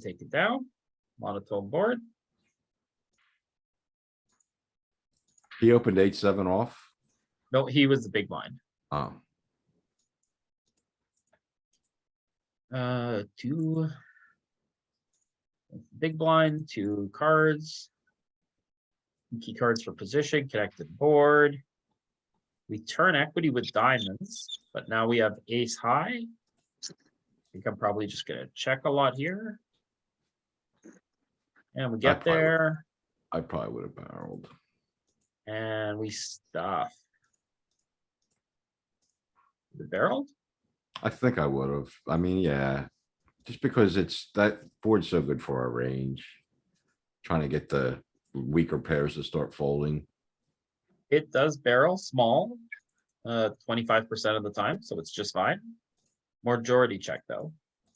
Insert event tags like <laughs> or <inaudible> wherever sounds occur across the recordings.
take it down, monotone board, He opened eight, seven off. no, he was the big blind, Oh, uh, two. Big blind, two cards. Key cards for position, connected board. We turn equity with diamonds, but now we have ace high. Think I'm probably just gonna check a lot here. And we get probably would. there. I probably would have barreled. And we stuff. The barrel? I think I would have. I mean, yeah. Just because it's that board's so good for our range. Trying to get the weaker pairs to start folding. It does barrel small, uh, twenty-five percent of the time, so it's just fine. Majority check though.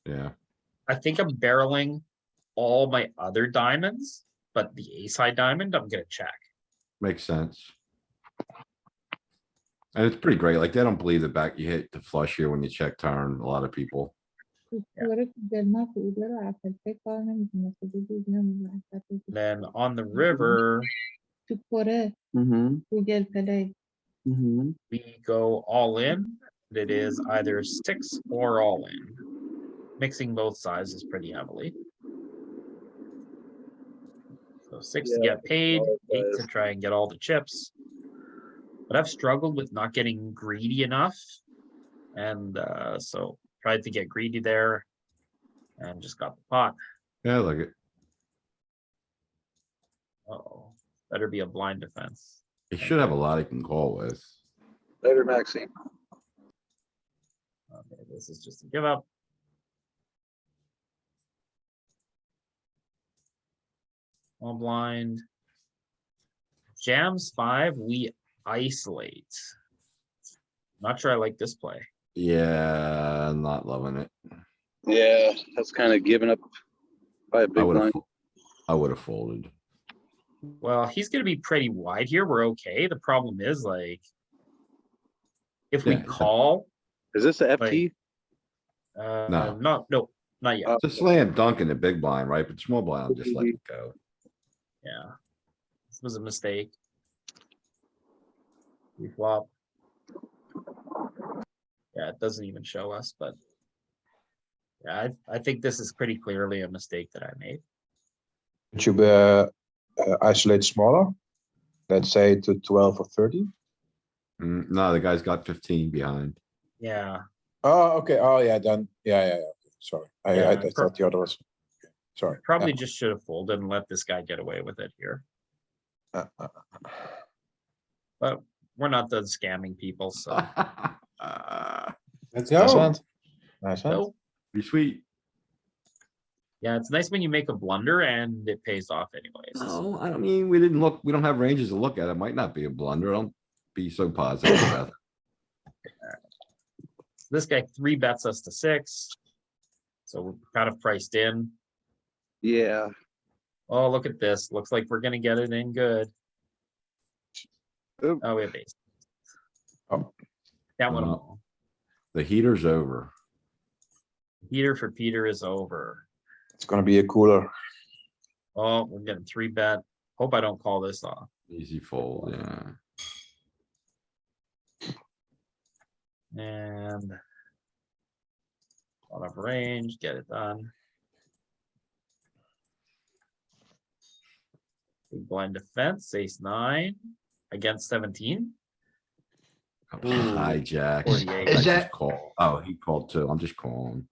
Yeah, I think I'm barreling all my other diamonds, but the ace high diamond, I'm gonna check. makes sense. And it's pretty great. Like they don't believe the back you hit the flush here when you check turn, a lot of people. Tutuları kırdırmak uyguları afette kalmamız nasıl bilmiyorum ben zaten. Then on the river, Tutuları Mm-hmm. uyguları Mm-hmm. we go all in. and It is either six or all in. Mixing both sides is pretty heavily. So six to Yeah, get paid, all eight to sides. try and get all the chips. But I've struggled with not getting greedy enough. And uh, so tried to get greedy there. And just got the pot. Yeah, like it. Oh, better be a blind defense. He should have a lot he can call with. Later, Maxine. Okay, this Oh, is just a give up. All blind. Jams five, we isolate. Not sure I like this play. Yeah, not loving it. Yeah, that's kind of given up by a I big would line. have, I would have folded. Well, he's gonna be pretty wide here. We're okay. The problem is like. If we Yeah, yeah. call, Is this the FT? uh, No. no, no, not yet. Uh, It's a slam dunk in the big blind, right? But small blind, I'm just let Mhm. it go. Yeah. This was a mistake. We flop. Yeah, it doesn't even show us, but. Yeah, I, I think this is pretty clearly a mistake that I made. Should you uh, uh, isolate smaller? Let's say to 12 or 30? Mm, no, the guy's got fifteen behind. <laughs> Yeah, Oh, okay. Oh, yeah, then. Yeah, yeah, yeah. okay, Sorry. I, I, Yeah, I pro- thought the other was. Sorry. probably just should have folded and let this guy get away with it here. Uh, uh, uh, But we're not done scamming people, so. Ah, Let's go. Nice hand. so, Be sweet. Yeah, it's nice when you make a blunder and it pays off anyways. No, I don't mean, we didn't look, we don't have ranges to look at. It might not be a blunder. Don't be so positive about it. This guy three bets us to six. So we're kind of priced in. Yeah, Oh, look at this. Looks like we're gonna get it in good. Oop. Oh, we have ace. Oh. That one, Uh, all. The heater's over. Peter for Peter is over. It's going to be a cooler. Oh, we're getting three bet. Hope I don't call this off. Easy fold, yeah. And out of range, get it done. Big blind defense, ace nine against seventeen. Oh, Ooh, Hijack. 48. I Is just that- call- Oh, he called too. I'm just calling.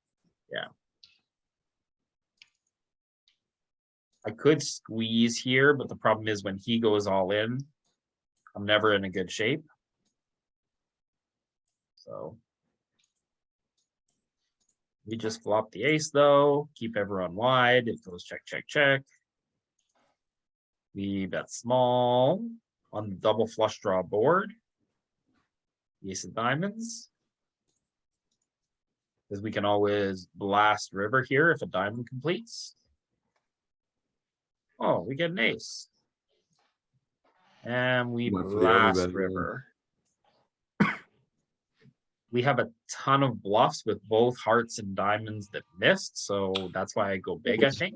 I could squeeze here, but the problem is when he goes all in, I'm never in a good shape. So. We just flop the ace though, keep everyone wide, it goes check, check, check. We bet small on the double flush draw board. Ace of diamonds. Cause we can always blast river here if a diamond completes. Oh, we get an ace. And we Went for the blast overbet again. river. we have a ton of bluffs with both hearts and diamonds that missed, so that's why I go big, I think.